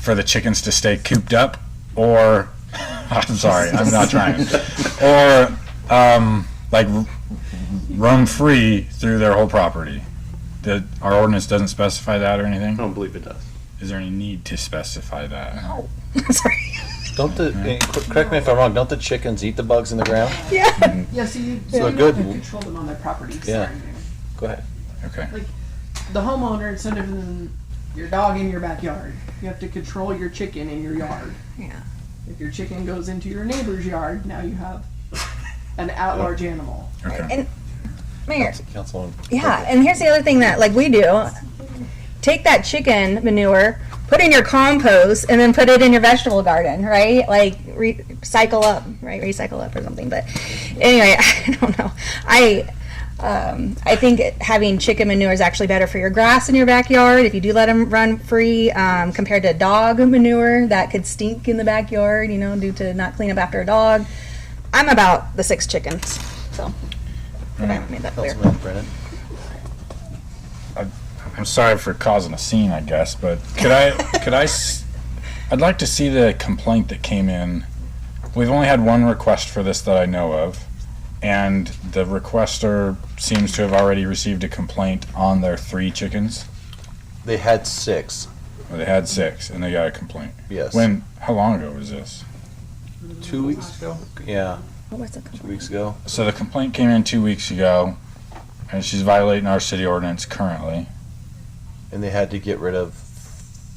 for the chickens to stay cooped up, or I'm sorry, I'm not trying, or um, like r- roam free through their whole property. That our ordinance doesn't specify that or anything. I don't believe it does. Is there any need to specify that? Sorry. Don't the, Mm-hmm. eh, cor- correct me if I'm wrong, don't the chickens eat the bugs in the ground? Yeah. Yeah, so you, So so you good. have to control them on their property. Yeah. Sorry. Go ahead. Okay. The homeowner, instead of in your dog in your backyard, you have to control your chicken in your yard. Yeah. If your chicken goes into your neighbor's yard, now you have an at-large animal. Okay. And Mayor, Council- Councilwoman. yeah, and here's the other thing that like we do. Take that chicken manure, put in your compost, and then put it in your vegetable garden, right? Like recycle up, right? Recycle up or something. But anyway, I don't know. I um, I think having chicken manure is actually better for your grass in your backyard if you do let them run free um, compared to dog manure that could stink in the backyard, you know, due to not clean up after a dog. I'm about the six chickens, so if I made that clear. Councilman Brennan. I'm sorry for causing a scene, I guess, but could I could I s- I'd like to see the complaint that came in. We've only had one request for this that I know of, and the requester seems to have already received a complaint on their three chickens. They had six, Or they had six, and they got a complaint. yes. When? How long ago was this? Two weeks ago? Yeah, What was the two weeks ago. So the complaint came in two weeks ago, and she's violating our city ordinance currently. And they had to get rid of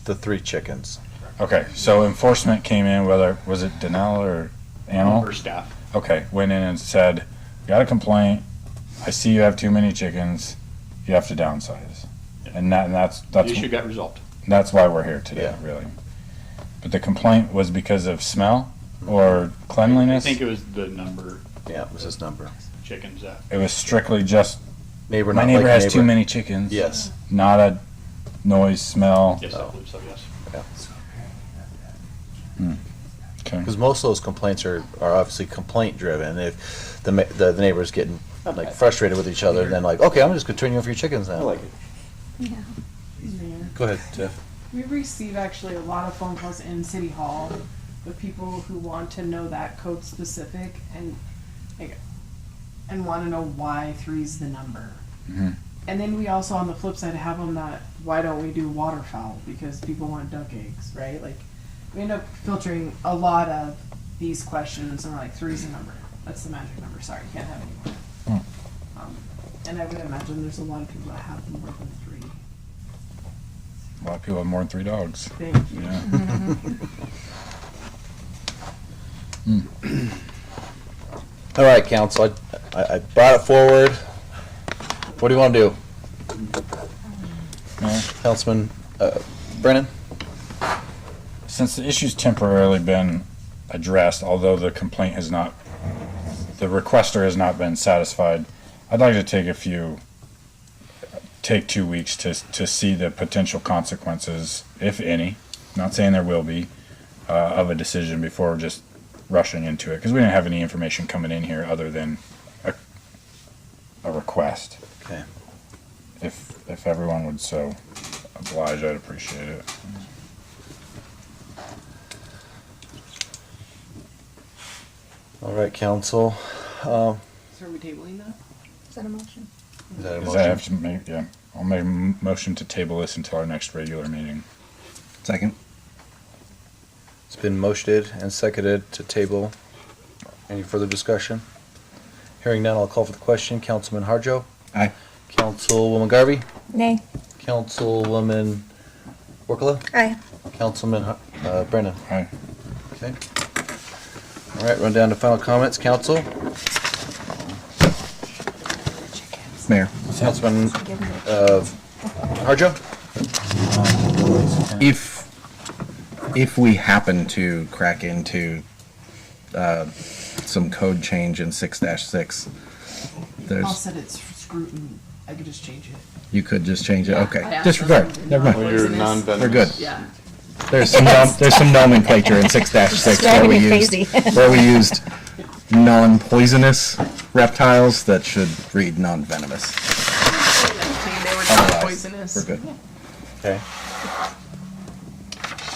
the three chickens. Okay, so enforcement came in, whether was it Denell or Animal? Or staff. okay, went in and said, got a complaint. I see you have too many chickens. You have to downsize. And, that, and that's The that's issue got resolved. that's why we're here today, Yeah. really. But the complaint was because of smell Mm-hmm. or cleanliness. I think it was the number Yeah, it was his number. of chickens that. it was strictly just Neighbor, my not neighbor like has too neighbor. many chickens. Yes, Not a noise, smell. Yes, Oh. I believe so, yes. Okay. because most of those complaints are, are obviously complaint driven. If the, ma- the the neighbor's getting like frustrated with each other, then like, okay, I'm just gonna turn you over your chickens now. it. Mayor. Go ahead, Jeff. We receive actually a lot of phone calls in City Hall with people who want to know that code specific and like, and want to know why three's the number. Mhm. And then we also, on the flip side, have them that why don't we do waterfowl because people want duck eggs, right? Like we end up filtering a lot of these questions, and we're like three's the number. That's the magic number. Sorry, can't have any more. Um, and I would imagine there's a lot of people that have more than three. A lot of people have more than three dogs. Thank you. Yeah. All right, council, I- I, I brought it forward. What do you want to do? Yeah. Councilman uh, Brennan? Since the issue's temporarily been addressed, although the complaint has not, the requester has not been satisfied, I'd like to take a few, take two weeks to, to see the potential consequences, if any, not saying there will be, uh, of a decision before just rushing into it, because we didn't have any information coming in here other than a, a request. Okay. If, if everyone would so oblige, I'd appreciate it. All right, council. Um, So are we tabling that? Is that a motion? Is that a Does that motion? have to make, yeah, I'll make a m- motion to table this until our next regular meeting. Second. It's been motioned and seconded to table. Any further discussion? Hearing none, I'll call for the question. Councilman Harjo? Aye. Councilwoman Garvey? Nay. Councilwoman Workla? Aye. Councilman Har- uh, Brennan? Aye. Okay. All right, run down to final comments. Council? Mayor. Councilman uh, Harjo? If if we happen to crack into uh, some code change in six six, I'll there's set its scrutiny. I could just change it. you could just change it. I Okay, asked disregard. them. Never mind. Poisonous. We're good. Yeah. There's some nom- there's some nomenclature in six six where Driving we me used crazy. where we used non-poisonous reptiles that should read non-venomous. They were not Otherwise, poisonous. We're good. Okay.